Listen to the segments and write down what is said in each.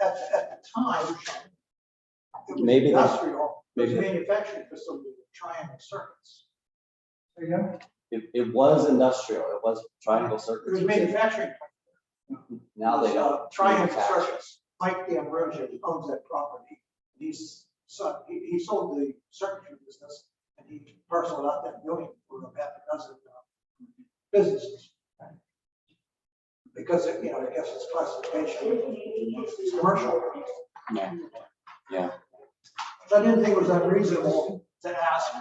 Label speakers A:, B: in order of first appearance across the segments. A: At, at the time. it was
B: Maybe they-
A: Industrial, it was
B: maybe-
A: manufacturing facility, with triangle circuits. There you go.
B: It, it was industrial, it was triangle
A: It was
B: circuits.
A: manufacturing.
B: Now they
A: Uh,
B: don't.
A: Triumph
B: manufacture.
A: Circuits, Mike D'Ambrosio owns that property. He's, so, he, he sold the circuitry business and he parceled out that building for about a dozen uh, businesses. Because, it, you know, I guess it's classification, it's commercial.
B: Yeah. Yeah.
A: So I didn't think it was unreasonable to ask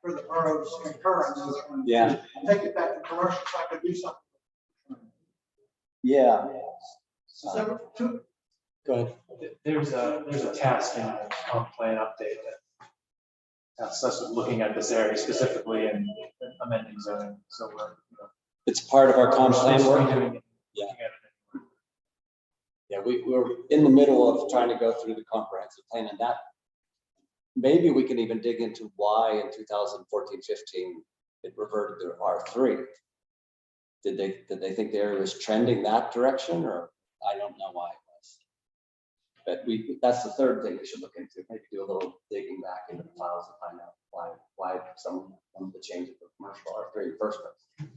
A: for the borough's concurrence.
B: Yeah.
A: Take it back to commercial, so I could do something.
B: Yeah. Uh,
A: So, two,
B: Go ahead.
C: Th- There's a, there's a task in our comp plan update that that's us looking at this area specifically and amending zoning, so we're. you know,
B: It's part of our comp plan
C: we're
B: work.
C: doing it,
B: Yeah.
C: looking at it.
B: Yeah, we, we're in the middle of trying to go through the comprehensive plan and that. Maybe we can even dig into why in 2014, 15, it reverted to R three. Did they, did they think the area was trending that direction or I don't know why it was. But we, that's the third thing we should look into, maybe do a little digging back into the files to find out why, why some, some of the changes of commercial R three first. place.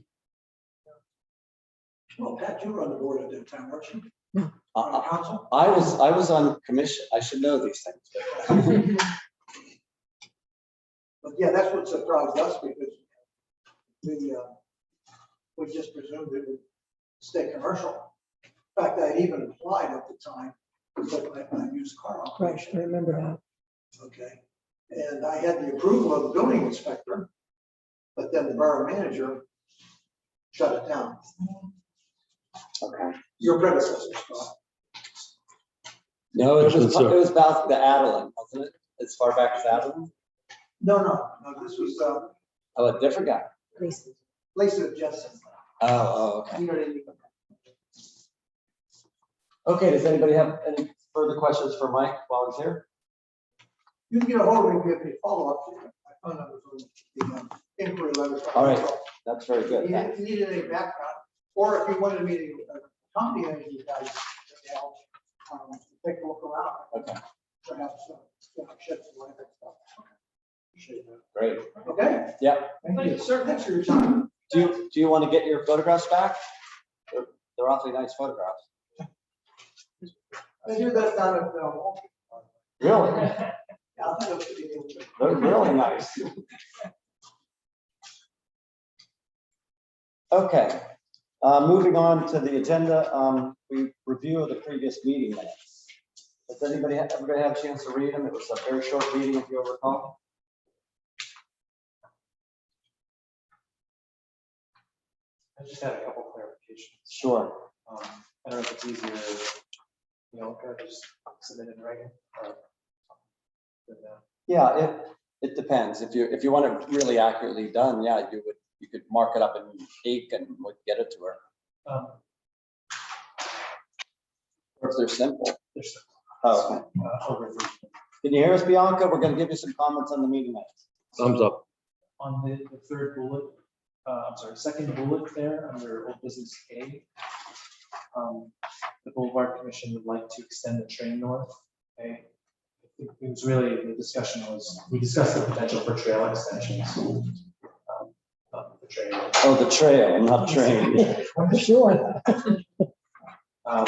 A: well, Pat, you were on the board at that time, weren't you?
B: Uh,
A: On the
B: uh,
A: council?
B: I was, I was on commission, I should know these things. but-
A: But yeah, that's what surprised us because we, uh, we just presumed it would stay commercial. In fact, I even applied at the time, but I, I used car
D: Right, I
A: operation,
D: remember that.
A: okay? And I had the approval of the building inspector, but then the borough manager shut it down.
B: Okay.
A: Your predecessor, Scott.
B: No, it
E: Question,
B: was, it
E: sir.
B: was about the Adeline, wasn't it? As far back as Adeline?
A: No, no, no, this was, uh,
B: Oh, a different guy.
D: Lisa.
A: Lisa Jensen.
B: Oh, oh, okay.
A: You know what I mean?
B: Okay, does anybody have any further questions for Mike while he's here?
A: You can get a hold of me, give me a follow-up. My phone number's on the um, inquiry letter.
B: All right. That's very good.
A: You
B: thanks.
A: didn't need any background, or if you wanted me to uh, accompany any of you guys, to help, um, take a look around.
B: Okay.
A: Perhaps, uh, you know, shed some light on stuff. Appreciate that.
B: Great.
A: Okay?
B: Yeah.
A: Thank you, sir. Thanks for your time.
B: Do you, do you want to get your photographs back? They're they're awfully nice photographs.
A: They do that down at, uh, Walmart.
B: Really?
A: Yeah, I think it'll be able to-
B: They're really nice. Okay, uh, moving on to the agenda, um, we review of the previous meeting minutes. Does anybody, everybody have a chance to read them? It was a very short meeting, if you recall.
C: I just had a couple clarifications.
B: Sure.
C: Um, I don't know if it's easier, you know, can I just submit it in writing? or- but, uh,
B: Yeah, it, it depends. If you, if you want it really accurately done, yeah, you would, you could mark it up in ink and would get it to her.
C: um,
B: Or if they're simple.
C: There's,
B: Oh, okay.
C: uh, over the-
B: can you hear us, Bianca? We're gonna give you some comments on the meeting minutes.
E: Thumbs up.
C: on the, the third bullet, uh, I'm sorry, second bullet there, under old business A. um, The Boulevard Commission would like to extend the train north. Okay. I think It was really, the discussion was, we discussed the potential for trail extensions. um, of The train.
B: Oh, the trail, not train.
D: Sure.
C: Um,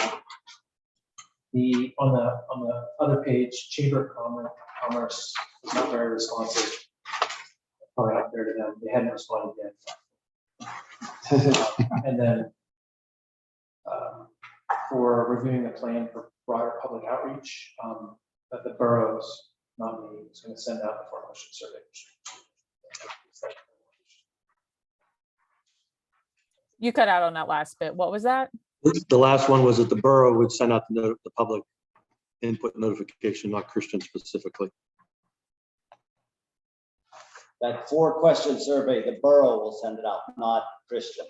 C: The, on the, on the other page, Chamber of Commer- Commerce was not very responsive. Or out there to them, they hadn't responded yet. Um, And then um, for reviewing the plan for broader public outreach, um, that the boroughs, not me, is going to send out the formal motion survey.
F: You cut out on that last bit. What was that?
E: The last one was that the borough would send out the, noti- the public input notification, not Christian specifically.
B: That four question survey, the borough will send it out, not Christian.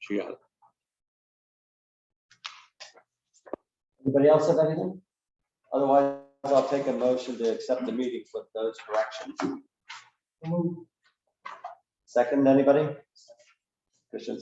E: She got it.
B: Anybody else have anything? Otherwise, I'll take a motion to accept the meetings with those corrections. Second, anybody? Christian